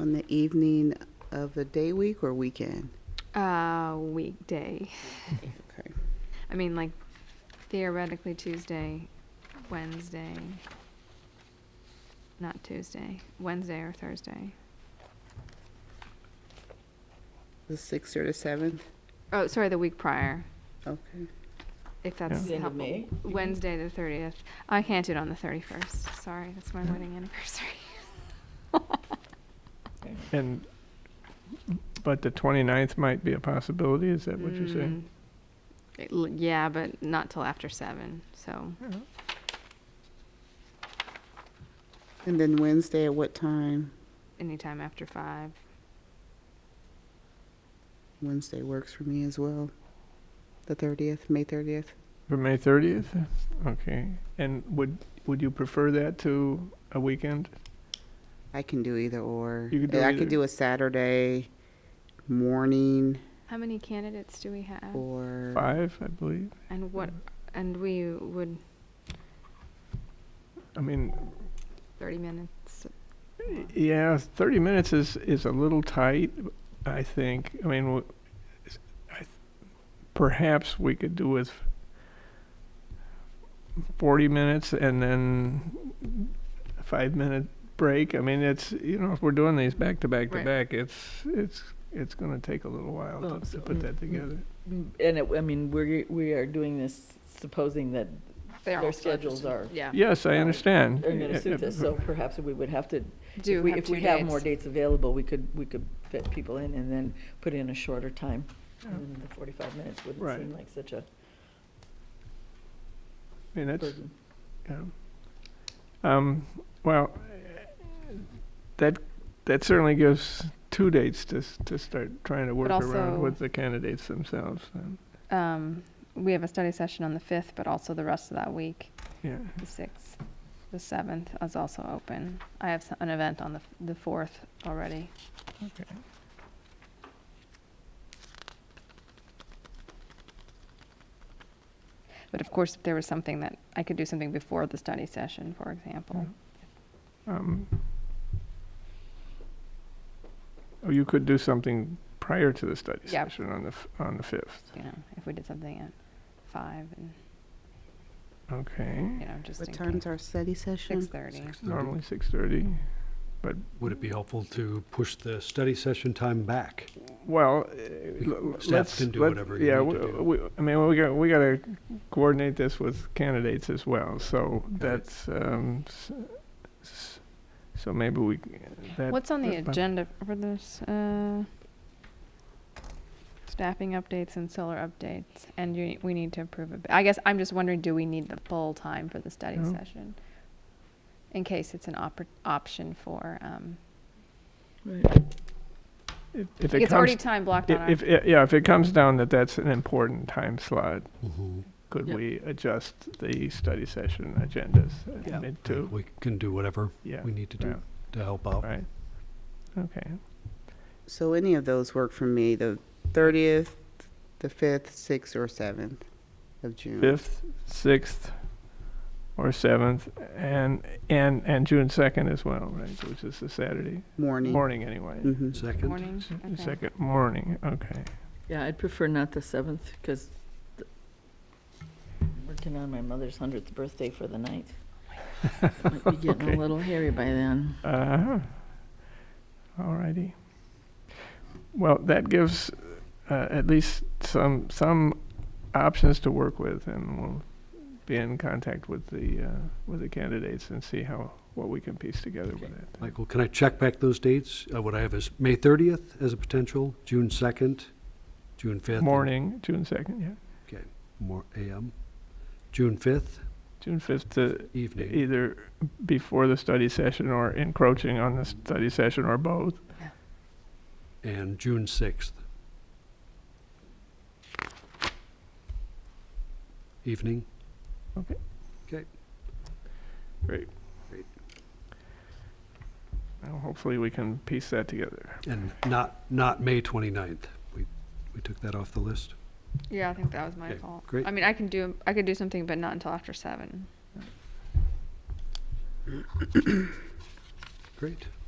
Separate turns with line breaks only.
on the evening of the day week or weekend?
Uh, weekday.
Okay.
I mean, like theoretically Tuesday, Wednesday. Not Tuesday, Wednesday or Thursday.
The 6th or the 7th?
Oh, sorry, the week prior,
Okay.
if that's
The end of
helpful.
May?
Wednesday, the thirtieth. I can't do it on the thirty-first. Sorry, that's my wedding anniversary.
And, but the 29th might be a possibility, is that what you're saying?
Mm. L- Yeah, but not till after seven, so.
And then Wednesday at what time?
anytime after five.
Wednesday works for me as well. The 30th, May 30th?
For May 30th? Okay. And would, would you prefer that to a weekend?
I can do either or.
You could do
I
either.
could do a Saturday morning
How many candidates do we have?
or.
Five, I believe.
And what, and we would,
I mean,
thirty minutes,
yeah, 30 minutes is, is a little tight, I think. I mean, w- I th- perhaps we could do with 40 minutes and then a five minute break. I mean, it's, you know, if we're doing these back to back to
Right.
back, it's, it's, it's going to take a little while
Well,
to,
so-
to put that
mm, mm.
together.
Mm, And it, I mean, we're, we are doing this supposing that
they're
Their
all scheduled.
schedules are-
Yeah.
Yes, I
Well,
understand.
they're going
Yeah,
to suit
yeah,
this, so perhaps we would have to,
Do
if we,
have
if we
two
have more
dates.
dates available, we could, we could fit people in and then put in a shorter time. And the forty-five minutes
Oh. Right.
wouldn't seem like such a
I mean, that's,
burden.
yeah. Um, well, that, that certainly gives two dates to, s- to start trying to work
also-
around with the candidates themselves. um,
Um, we have a study session on the fifth, but also the rest of that week,
Yeah,
the sixth, the seventh is also open. I have s- an event on the, f- the fourth already. But of course, if there was something that, I could do something before the study session, for example.
um, Oh, you could do something prior to the study
Yeah.
session on the, f- on the fifth,
You know, if we did something at five and,
okay?
you know, just in
What
case.
time's our study session?
Six thirty.
Normally six-thirty.
Would it be helpful to push the study session time back?
Well, uh,
You-
l- l-
staff
let's,
can do
let-
whatever you
yeah,
need to
w-
do.
we- I mean, we got, we gotta coordinate this with candidates as well, so that's, um, s- s- so maybe we, c- that.
What's on the
uh, but-
agenda for this, uh, staffing updates and solar updates, and you, we need to approve it. I guess I'm just wondering, do we need the full time for the study
No.
session? In case it's an oppor- option for, um,
If if it
it's already
comes,
time blocked on
i-
our.
if, i- yeah, if it comes down that that's an important time slot, Mm-hmm. could
Yep.
we adjust the study session agendas
Yeah.
mid to?
We can do whatever
Yeah,
we need to
yeah,
do to help out.
right, okay.
So any of those work for me, the 30th, the 5th, 6th, or 7th of June.
fifth, sixth, or seventh, and and and June second as well, right? Which is the Saturday
Morning.
morning, anyway.
hmm
Second?
Morning,
S-
okay.
Second morning, okay.
Yeah, I'd prefer not the seventh, because working on my mother's hundredth birthday for the night. Might be getting
Okay.
a little hairy by then.
Uh huh. All righty. Well, that gives uh, at least some some options to work with, and we'll be in contact with the uh, with the candidates and see how what we can piece together with it.
Michael, can I check back those dates? Uh, What I have is May 30th as a potential, June 2nd, June 5th. and-
Morning, June second, yeah,
Okay, more AM. June 5th,
June fifth to
evening.
either before the study session or encroaching on the study session or both.
And June 6th. Evening.
Okay.
Okay.
Great.
Great.
Well, hopefully we can piece that together.
And not, not May 29th. We, we took that off the list.
Yeah, I think that was my
Okay,
fault.
great.
I mean, I can do, I could do something, but not until after seven.
Great.